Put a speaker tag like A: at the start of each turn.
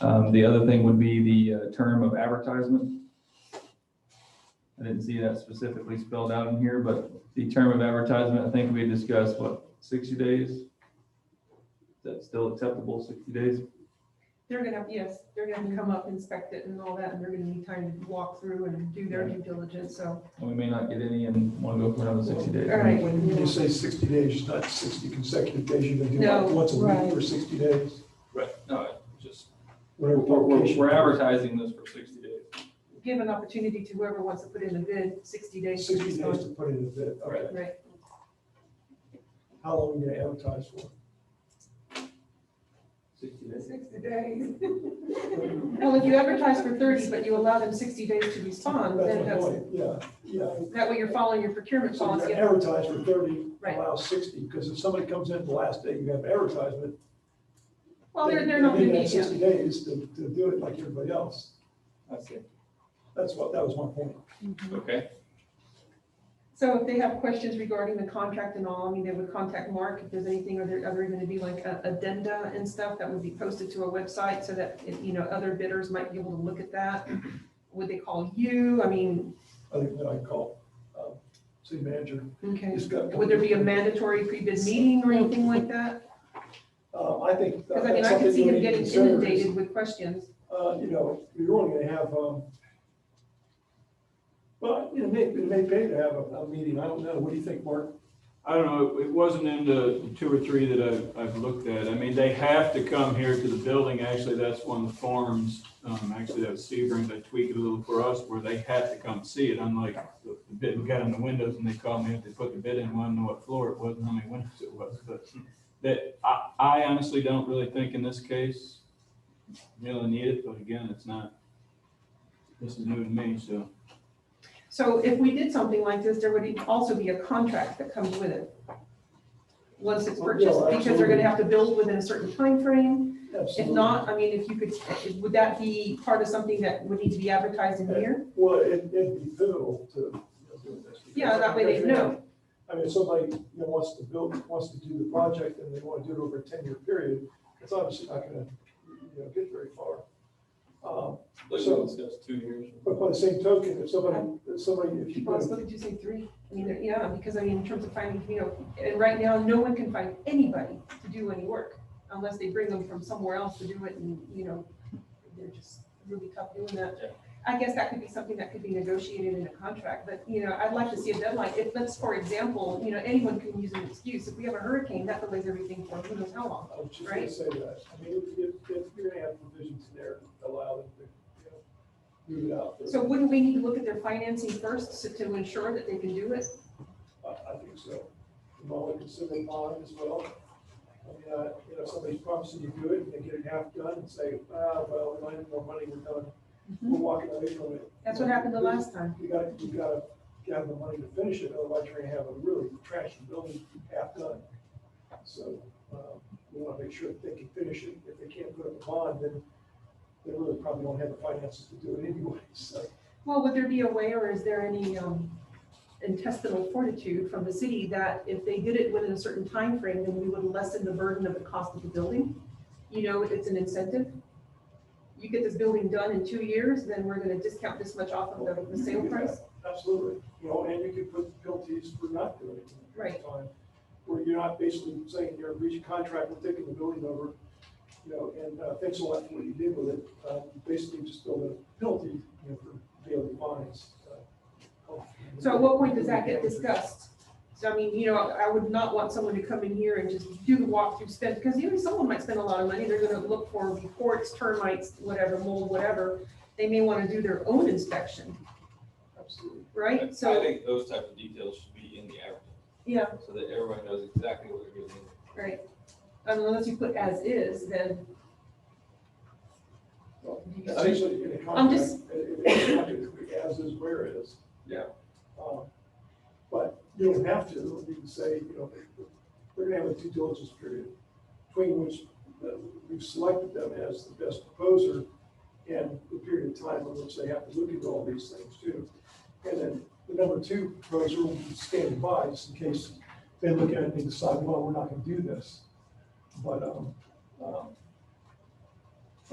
A: Um, The other thing would be the uh, term of advertisement. I didn't see that specifically spelled out in here, but the term of advertisement, I think we discussed, what, 60 days? Is that still acceptable, 60 days?
B: They're gonna, yes, they're gonna come up, inspect it and all that, and they're gonna need time to walk through and do their due diligence, so.
A: And we may not get any and want to go for another 60 days.
B: All right.
C: When you say sixty days, it's not sixty consecutive days, you can do
B: No,
C: that once a
B: right.
C: week for sixty days.
A: Right, no, it just, we're,
C: whatever
A: we're
C: publication.
A: we're advertising this for 60 days.
B: Give an opportunity to whoever wants to put in a bid, sixty days. to
C: Sixty days
B: respond.
C: to put in a bid, okay.
B: Right,
C: How long are you gonna advertise for?
A: 60 days.
B: sixty days. Well, if you advertise for thirty, but you allow them sixty days to respond,
C: That's
B: then
C: my
B: that's,
C: point, yeah, yeah.
B: that way you're following your procurement
C: So you
B: policy.
C: advertise for thirty,
B: Right.
C: allow sixty, because if somebody comes in the last day, you have advertisement.
B: Well, they're,
C: they-
B: they're not
C: they
B: gonna
C: have
B: need you.
C: Sixty days to, to do it like everybody else.
A: I see.
C: That's what, that was my point.
A: Okay,
B: So if they have questions regarding the contract and all, I mean, they would contact Mark if there's anything, are there ever going to be like a- addenda and stuff that would be posted to a website so that, you know, other bidders might be able to look at that? Would they call you? I mean,
C: I think that I call, um, city manager.
B: okay.
C: He's got-
B: Would there be a mandatory pre-bid meeting or anything like that?
C: Uh, I think.
B: Because I mean, I could see him getting inundated with questions.
C: uh, you know, you're only gonna have, um, well, it may, it may pay to have a, a meeting, I don't know, what do you think, Mark?
D: I don't know, it wasn't in the two or three that I've, I've looked at. I mean, they have to come here to the building. Actually, that's one of the forms, um, actually, that was Sebring, they tweaked it a little for us, where they have to come see it, unlike the the bid, we got in the windows and they called me if they put the bid in, wanted to know what floor it was and how many windows it was, but that, I, I honestly don't really think in this case, really need it, but again, it's not, this is new to me, so.
B: So if we did something like this, there would e, also be a contract that comes with it. Once it's
C: Oh, yeah,
B: purchased, because they're going to
C: absolutely.
B: have to build within a certain time frame. If
C: Absolutely.
B: not, I mean, if you could, would that be part of something that would need to be advertised in here?
C: Well, it, it'd be pivotal to. you know, do this, because
B: Yeah, that way they know.
C: I mean, if somebody, you know, wants to build, wants to do the project and they wanna do it over a ten-year period, it's obviously not gonna, you know, get very far. Um,
A: let's
C: So-
A: discuss two years.
C: but by the same token, if somebody, if somebody, if you. put a-
B: Well, what did you say, three? I mean, there- yeah, because I mean, in terms of finding, you know, and right now, no one can find anybody to do any work unless they bring them from somewhere else to do it and, you know, they're just really tough doing
A: Yeah.
B: that. I guess that could be something that could be negotiated in a contract, but, you know, I'd like to see a deadline. If, let's, for example, you know, anyone can use an excuse. If we have a hurricane, that delays everything for who knows how long.
C: I was just gonna say that. I mean, if, if, if you're gonna have provisions in there, that allow them to, you know, move it out. there.
B: So wouldn't we need to look at their financing first to- to ensure that they can do it?
C: I, I think so. You might want to consider bond as well. I mean, uh, you know, somebody's promising you do it and they get it half done and say, ah, well, we don't have more money, we're done. We're walking away from it.
B: Mm-hmm. That's what happened the last time.
C: You gotta, you gotta have the money to finish it, otherwise you're gonna have a really trashy building half done. So, um, we wanna make sure that they can finish it. If they can't put up a bond, then they really probably don't have the finances to do it anyway, so.
B: Well, would there be a way or is there any um, intestinal fortitude from the city that if they did it within a certain time frame, then we would lessen the burden of the cost of the building? You know, it's an incentive. You get this building done in two years, then we're gonna discount this much off of the- the sale price?
C: Absolutely, you know, and you could put penalties for not doing it. at the
B: Right.
C: time, Where you're not basically saying you're breaching contract, we're taking the building over, you know, and uh, thanks a lot for what you did with it. Uh, you Basically just build a penalty, you know, for daily fines. uh,
B: So at what point does that get discussed? So I mean, you know, I would not want someone to come in here and just do the walkthrough, spend, because you know, someone might spend a lot of money, they're gonna look for reports, termites, whatever, mold, whatever. They may wanna do their own inspection,
C: Absolutely.
B: right?
E: I
B: So,
E: think those type of details should be in the advertisement,
B: yeah,
E: so that everyone knows exactly what they're getting.
B: right. Unless you put as is, then,
C: Well, Essentially, in a
B: I'm just-
C: contract, it- it's not gonna be as is where is.
E: Yeah.
C: Um, But you don't have to, you can say, you know, we're gonna have a due diligence period, between which uh, we've selected them as the best proposer, and the period of time in which they have to look at all these things too. And then the number two proposer will be standing by, just in case they look at it and decide, well, we're not gonna do this. But, um, um,